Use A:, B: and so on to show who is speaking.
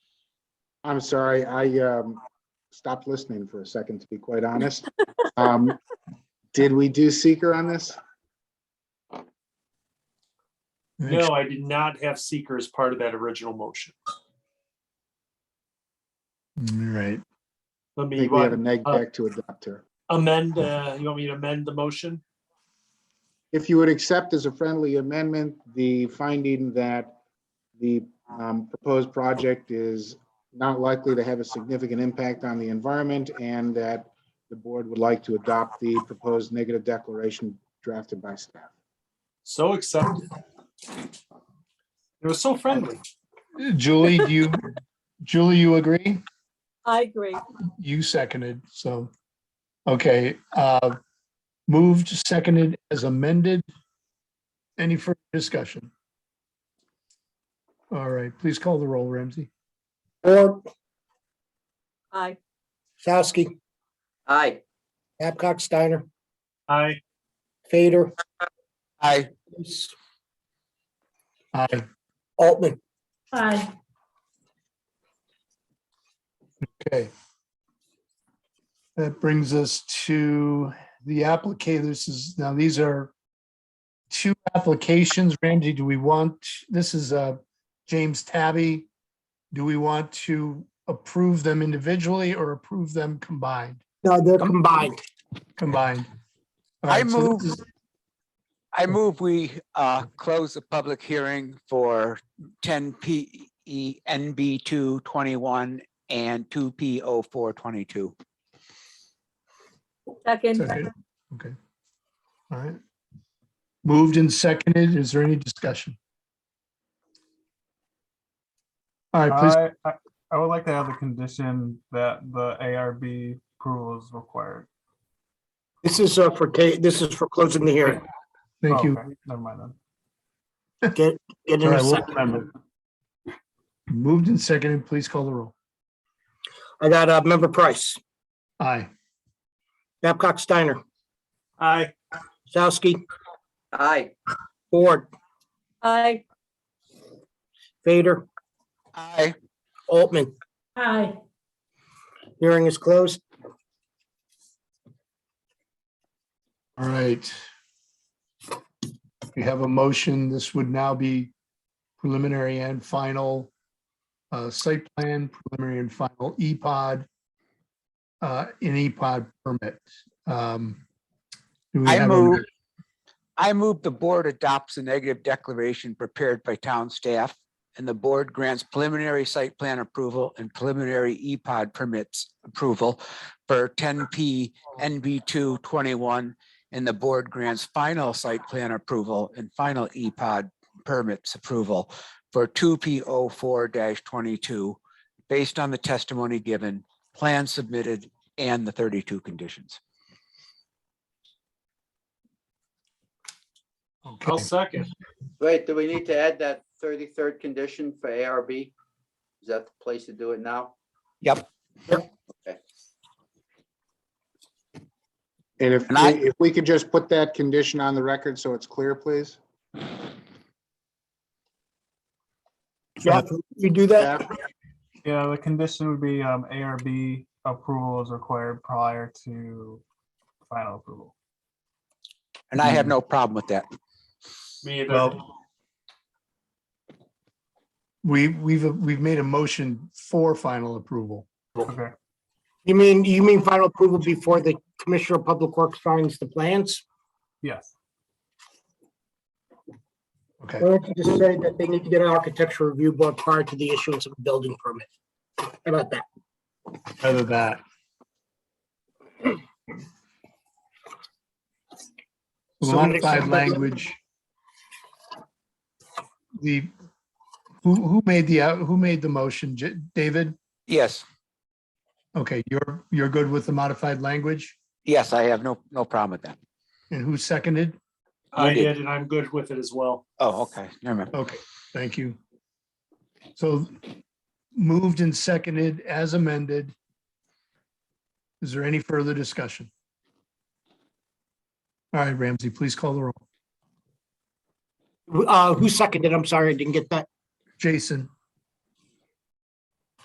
A: I'm sorry, I um, stopped listening for a second, to be quite honest. Um, Did we do seeker on this?
B: No, I did not have seeker as part of that original motion.
C: Right.
B: Let
A: I
B: me
A: think we have a
B: what,
A: neg
B: uh,
A: deck to adopt here.
B: amend, uh, you want me to amend the motion?
A: If you would accept as a friendly amendment, the finding that the um, proposed project is not likely to have a significant impact on the environment and that the board would like to adopt the proposed negative declaration drafted by staff.
B: So accepted. It was so friendly.
C: Julie, do you, Julie, you agree?
D: I agree.
C: You seconded, so. Okay, uh, moved, seconded as amended. Any further discussion? All right, please call the roll, Ramsey.
E: Or
D: Aye.
E: Sowski,
F: Aye.
E: Babcock, Steiner,
B: I,
E: Fader,
F: Aye.
C: Aye.
E: Altman.
D: Aye.
C: Okay. That brings us to the applicant. This is, now these are two applications. Ramsey, do we want, this is uh, James Tabby. Do we want to approve them individually or approve them combined?
E: No, they're combined.
C: Combined. All
F: I
C: right, so this
F: move-
C: is-
F: I move we uh, close the public hearing for E 10 PE NB 221 and 2 PO 422.
D: Second.
C: second. Okay. All right. Moved and seconded. Is there any discussion? All right, please.
G: I, I- I would like to have the condition that the ARB approval is required.
E: This is uh, for, ta- this is for closing the hearing.
C: Thank
G: Oh,
C: you.
G: okay, Never mind then.
E: Get, get in
C: All
E: a
C: right, we'll-
E: second.
C: Moved and seconded, please call the roll.
E: I got uh, member Price,
C: Aye.
E: Babcock, Steiner,
B: I,
E: Sowski,
F: Aye.
E: Ford,
D: Aye.
E: Fader,
F: Aye.
E: Altman.
D: Aye.
E: Hearing is closed.
C: All right. We have a motion. This would now be preliminary and final uh, site plan, preliminary and final EPOD, uh, an EPOD permit. Um, do we
F: I
C: have a-
F: move- I move the board adopts a negative declaration prepared by town staff and the board grants preliminary site plan approval and preliminary E EPOD permits approval for 10P NB 221 and the board grants final site plan approval and final E EPOD permits approval for 2P 04-22 based on the testimony given, plan submitted, and the 32 conditions.
B: I'll
C: Okay,
B: second.
H: Wait, do we need to add that thirty-third condition for ARB? Is that the place to do it now?
A: And if,
F: And I-
A: we- if we could just put that condition on the record so it's clear, please.
E: Jeff, you do that?
A: Staff?
G: Yeah, the condition would be um, ARB approval is required prior to final approval.
F: And I have no problem with that.
B: Me either.
C: well. We, we've, we've made a motion for final approval.
G: Okay,
E: You mean, you mean final approval before the Commissioner of Public Works signs the plans?
G: yes.
C: Okay.
E: Why don't you just say that they need to get an architecture review board prior to the issuance of a building permit? How about that?
C: Either that.
E: So when it
C: Modified
E: comes-
C: language. The, who, who made the, uh, who made the motion? J- David?
F: Yes,
C: Okay, you're, you're good with the modified language?
F: yes, I have no, no problem with that.
C: And who seconded?
B: I
F: You did.
B: did, and I'm good with it as well.
F: Oh, okay, never mind.
C: Okay, thank you. So moved and seconded as amended. Is there any further discussion? All right, Ramsey, please call the roll.
E: Uh, who seconded? I'm sorry, I didn't get that.
C: Jason?